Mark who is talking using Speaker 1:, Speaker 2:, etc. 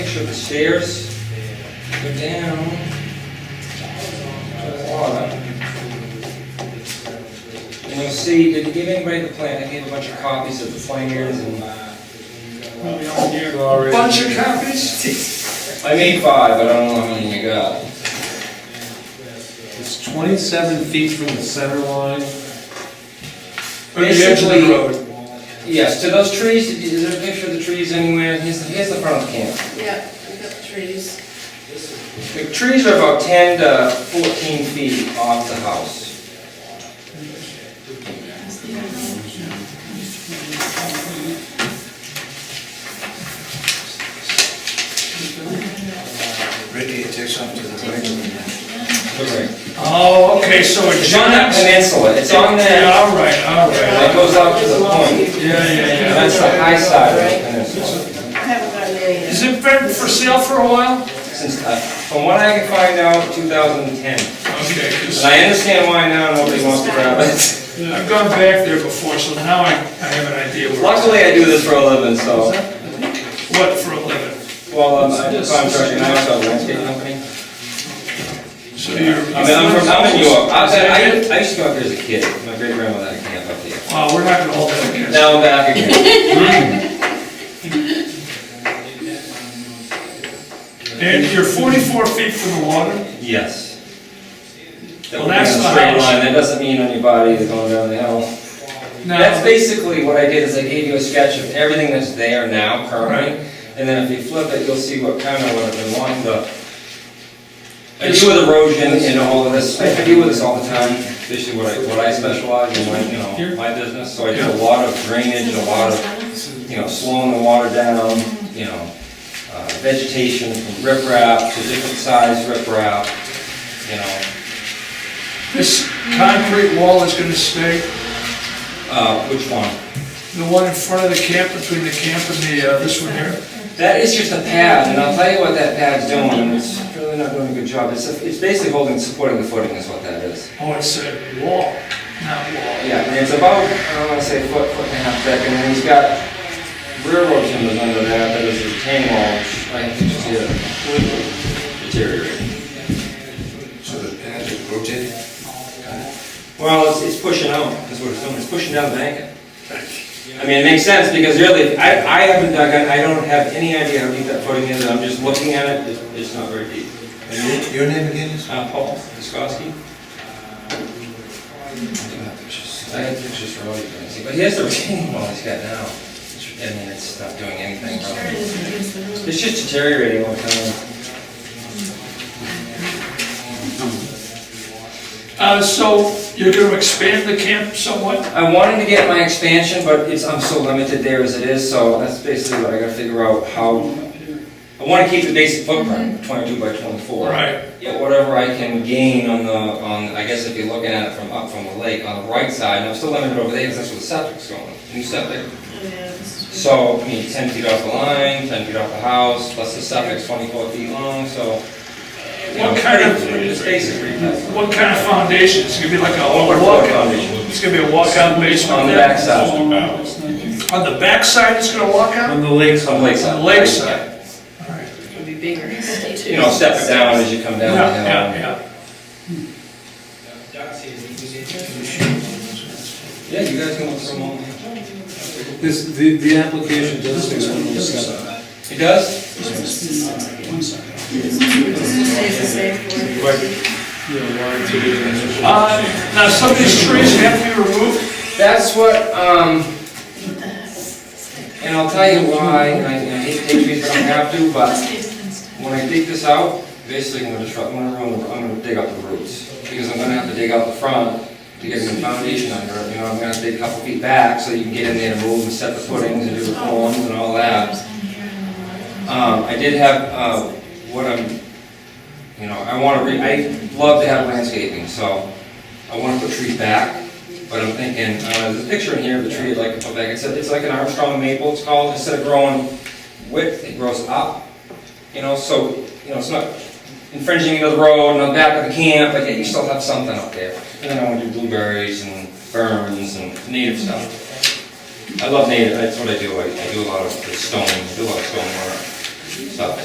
Speaker 1: picture of the stairs. Go down to the water. And you'll see, did you give anybody the plan? I gave a bunch of copies of the plans and. Bunch of copies? I made five, but I don't know how many you got.
Speaker 2: It's 27 feet from the center line.
Speaker 3: From the edge of the
Speaker 1: Basically-
Speaker 3: road.
Speaker 1: Yes, to those trees, is there a picture of the trees anywhere? Here's, here's the front of the camp.
Speaker 4: Yeah, we got the trees.
Speaker 1: The trees are about 10 to 14 feet off the house.
Speaker 5: Ricky, it takes up to the right.
Speaker 3: Oh, okay, so it
Speaker 1: It's on that
Speaker 3: juts.
Speaker 1: peninsula, it's on
Speaker 3: Yeah,
Speaker 1: that,
Speaker 3: all right, all right.
Speaker 1: that goes out to the point.
Speaker 3: Yeah, yeah, yeah.
Speaker 1: That's the high side of the peninsula.
Speaker 4: I haven't gotten any yet.
Speaker 3: Has it been for sale for a while?
Speaker 1: Since, uh, from what I can find out, 2010.
Speaker 3: Okay, 'cause
Speaker 1: And I understand why now nobody wants to grab it.
Speaker 3: I've gone back there before, so now I, I have an idea where,
Speaker 1: Luckily, I do this for a living, so.
Speaker 3: what for a living.
Speaker 1: Well, I'm I'm a contractor, and I also have a landscape company.
Speaker 3: So you're.
Speaker 1: I mean, I'm from, I'm in York. I was- I I used to go up there as a kid. My great grandmother had a camp up there.
Speaker 3: Wow, we're not gonna hold that against. you.
Speaker 1: Now I'm back again.
Speaker 3: And you're forty-four feet from the water?
Speaker 1: Yes.
Speaker 3: Well, that's the
Speaker 1: Straight
Speaker 3: house.
Speaker 1: line, that doesn't mean on your body is going down the hill.
Speaker 3: No.
Speaker 1: That's basically what I did, is I gave you a sketch of everything that's there now currently, and then if you flip it, you'll see what kind of what I've been wanting to. I deal with erosion and all of this, I deal with this all the time, this is what I, what I specialize in, my, you know, my business, so I do a lot of drainage, a lot of you know, slowing the water down, you know, uh, vegetation from riprap to different size riprap, you know.
Speaker 3: This concrete wall is gonna stay,
Speaker 1: Uh, Which one?
Speaker 3: the one in front of the camp, between the camp and the, uh, this one here?
Speaker 1: That is just a pad, and I'll tell you what that pad's doing, and it's really not doing a good job. It's, it's basically holding, supporting the footing is what that is.
Speaker 3: Oh, it's a wall, not wall.
Speaker 1: Yeah, and it's about, I don't wanna say foot, foot and a half thick, and then he's got railroad timbers under that, that is a retaining wall, which I think is just completely deteriorating.
Speaker 5: So the pad is rotating?
Speaker 1: Well, it's, it's pushing out, that's what it's doing, it's pushing down the bank. I mean, it makes sense, because really, I, I haven't dug, it. I don't have any idea how deep that footing is, I'm just looking at it, it's, it's not very deep.
Speaker 5: And your- Your name again is?
Speaker 1: Uh, Paul Duskowski? I had pictures for all you guys, but here's the retaining wall he's got now, I mean, it's not doing anything,
Speaker 4: Sure,
Speaker 1: probably.
Speaker 4: this is against the rules.
Speaker 1: It's just deteriorating all the time.
Speaker 3: Uh, so you're gonna expand the camp somewhat?
Speaker 1: I wanted to get my expansion, but it's, I'm so limited there as it is, so that's basically what I gotta figure out, how, I wanna keep the basic footprint, twenty-two by twenty-four.
Speaker 3: Right.
Speaker 1: Yeah, whatever I can gain on the, on, I guess if you're looking at it from up from the lake, on the right side, and I'm still limited over there, because that's where the septic's going, new septic.
Speaker 4: Oh, Yeah, this is-
Speaker 1: So, I mean, ten feet off the line, ten feet off the house, plus the septic's twenty-four feet long, so. you know,
Speaker 3: What kind of-
Speaker 1: It's basically.
Speaker 3: What kind of foundation? It's gonna be like a
Speaker 1: Or
Speaker 3: walkout?
Speaker 1: block foundation.
Speaker 3: It's gonna be a walkout basement?
Speaker 1: On the
Speaker 3: there?
Speaker 1: backside.
Speaker 3: On the backside, it's gonna walk out?
Speaker 2: On the lakeside.
Speaker 1: On the lakeside.
Speaker 3: On the lakeside?
Speaker 4: It'll be bigger.
Speaker 1: You know, step it down as you come
Speaker 3: Yeah,
Speaker 1: down the hill.
Speaker 3: yeah, yeah.
Speaker 1: Yeah, you guys can look for a moment.
Speaker 2: This, the, the application does say 107.
Speaker 1: It does?
Speaker 4: This just stays the same for
Speaker 2: You know, one, two,
Speaker 5: Ah,
Speaker 3: Uh, now, some of these trees have to be removed?
Speaker 1: That's what, um, and I'll tell you why, and I I hate to take these, but I have to, but when I dig this out, basically I'm gonna try, I'm gonna, ruin the- I'm gonna dig out the roots. Because I'm gonna have to dig out the front to get a new foundation under it, you know, I'm gonna have to dig a couple feet back so you can get in there and move and set the footings and do the forms and all that. Um, I did have, uh, what I'm, you know, I wanna re, I love to have landscaping, so I wanna put trees back, but I'm thinking, uh, there's a picture in here of the tree I'd like to put back, it's, a- it's like an Armstrong maple, it's called, instead of growing width, it grows up, you know, so, you know, it's not infringing into the road and on the back of the camp, but yet you still have something up there. And then I wanna do blueberries and ferns and native stuff. I love native, that's what I do, I, I do a lot of the stone, do a lot of stone work, stuff.